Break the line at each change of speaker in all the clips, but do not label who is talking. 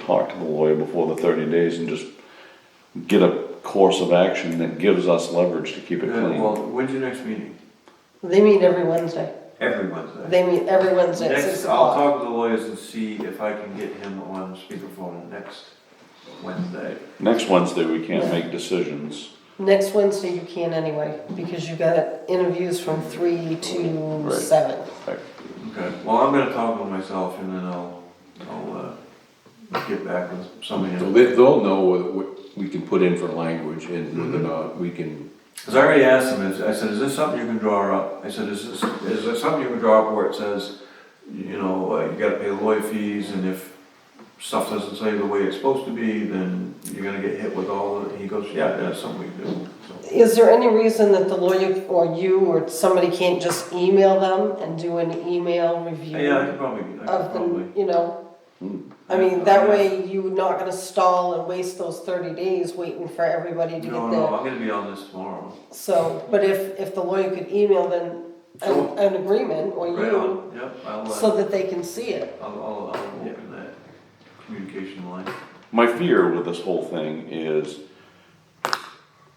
talk to the lawyer before the thirty days and just get a course of action that gives us leverage to keep it
Uh,
clean.
Well, when's your next meeting?
They meet every Wednesday.
Every Wednesday.
They meet every Wednesday at six
Next, I'll
o'clock.
talk to the lawyers and see if I can get him on speakerphone next Wednesday.
Next Wednesday, we can't make decisions.
Next Wednesday you can anyway, because you got interviews from three to
Right.
seven.
Okay, well, I'm gonna talk to him myself and then I'll, I'll, uh, get back with somebody.
So they, they'll know what, what we can put in for language and whether or not we can,
Cause I already asked him, I said, is this something you can draw up? I said, is this, is this something you can draw up where it says, you know, uh, you gotta pay lawyer fees and if stuff doesn't say the way it's supposed to be, then you're gonna get hit with all, the-" he goes, yeah, that's something we can do, so.
Is there any reason that the lawyer or you or somebody can't just email them and do an email review?
Yeah, I could probably, I could
Of
probably. Mm.
the, you know,
Hmm.
I mean, that way you're not gonna stall and waste those thirty days waiting for everybody to
No,
get
no,
their.
I'm gonna be on this tomorrow.
So, but if, if the lawyer could email them an, an agreement or
Right
you,
on, yep, I'll, uh,
so that they can see it.
I'll, I'll, I'll open that communication line.
My fear with this whole thing is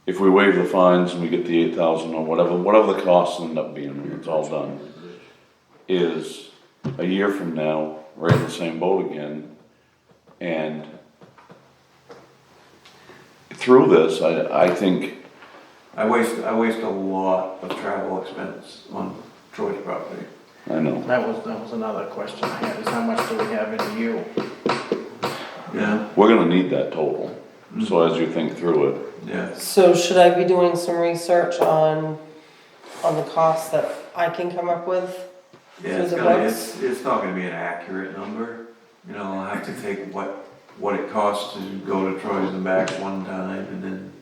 if we waive the fines and we get the eight thousand or whatever, whatever the costs end up being, when it's all done, is a year from now, we're in the same boat again. And through this, I, I think,
I waste, I waste a lot of travel expense on Troy's property.
I know,
That was, that was another question I had, is how much do we have in you?
Yeah,
we're gonna need that total. So as you think through it,
yeah.
So should I be doing some research on, on the costs that I can come up with?
Yeah, it's
So the
gonna,
bucks?
it's, it's not gonna be an accurate number, you know, I'll have to take what, what it costs to go to Troy's and back one time and then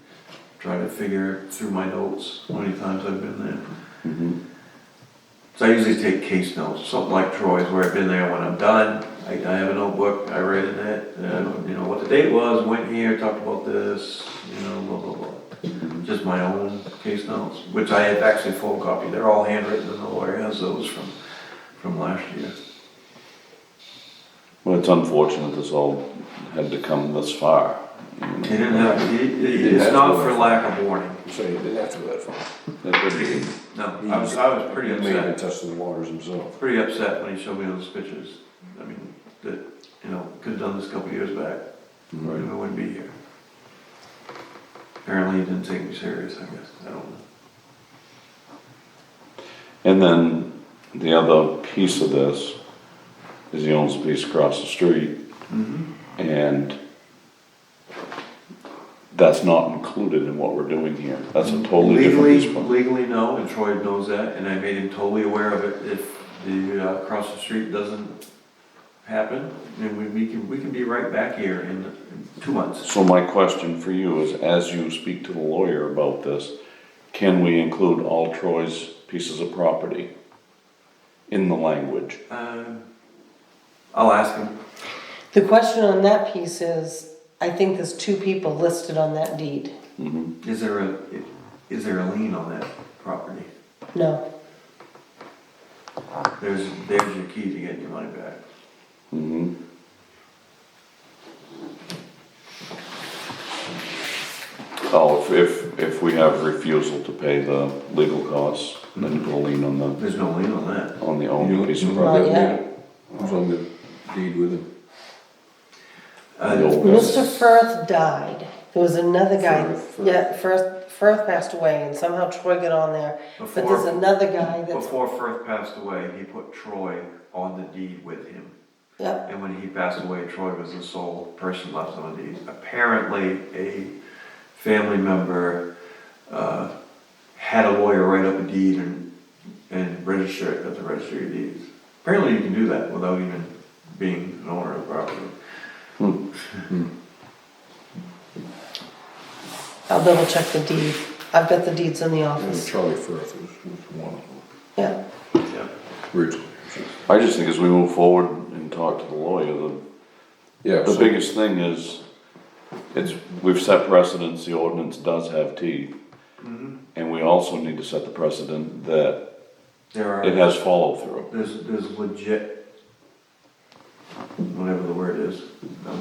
try to figure through my notes, how many times I've been there. So I usually take case notes, something like Troy's where I've been there when I'm done, I, I have a notebook, I write in it, uh, you know, what the date was, went here, talked about this, you know, blah, blah, blah. Just my own case notes, which I have actually photocopied, they're all handwritten and the lawyer has those from from last year.
well, it's unfortunate this all had to come this far. you know.
He didn't have, he- he-
Yeah,
it's
that's
not
what
for
I-
lack of warning.
so you didn't have to go that far.
That could be.
No, I was, I was pretty
He may have been
upset,
testing the waters himself.
pretty upset when he showed me those pictures. I mean, that, you know, could've done this a couple years back, I
Right.
wouldn't be here. Apparently he didn't take me serious, I guess, I don't know.
And then the other piece of this is he owns a piece across the street
Mm-hmm.
and that's not included in what we're doing here. That's a totally different
Legally,
piece. of-
legally, no, and Troy knows that, and I made him totally aware of it. If the, uh, across the street doesn't happen, then we, we can, we can be right back here in in two months.
So my question for you is, as you speak to the lawyer about this, can we include all Troy's pieces of property in the language?
Um, I'll ask him.
The question on that piece is, I think there's two people listed on that deed.
Mhm.
Is there a is there a lien on that property?
No,
There's there's your key to getting your money back.
Mhm. Oh, if, if, if we have refusal to pay the legal costs, then go lean on the,
There's no lien on that.
on the owned piece of
Not
property.
yet.
Who's on the deed with him?
The
Uh,
old-
Mr. Firth died. There was another guy,
Firth, Firth.
yeah, Firth, Firth passed away and somehow Troy got on there. But there's
before
another guy that's,
before Firth passed away, he put Troy on the deed with him.
yep,
And when he passed away, Troy was the sole person left on the deed. Apparently, a family member uh, had a lawyer write up a deed and, and register it at the registry of deeds. Apparently, you can do that without even being an owner of the property.
I'll double check the deed. I've got the deeds in the
And
office.
Charlie Firth was, was one of them
Yeah,
Yep.
originally.
I just think as we move forward and talk to the lawyer, the
Yeah,
The
so
biggest thing is, it's, we've set precedents, the ordinance does have teeth. And we also need to set the precedent that
There
it
are,
has follow-through.
there's, there's legit, whatever the word is, I'm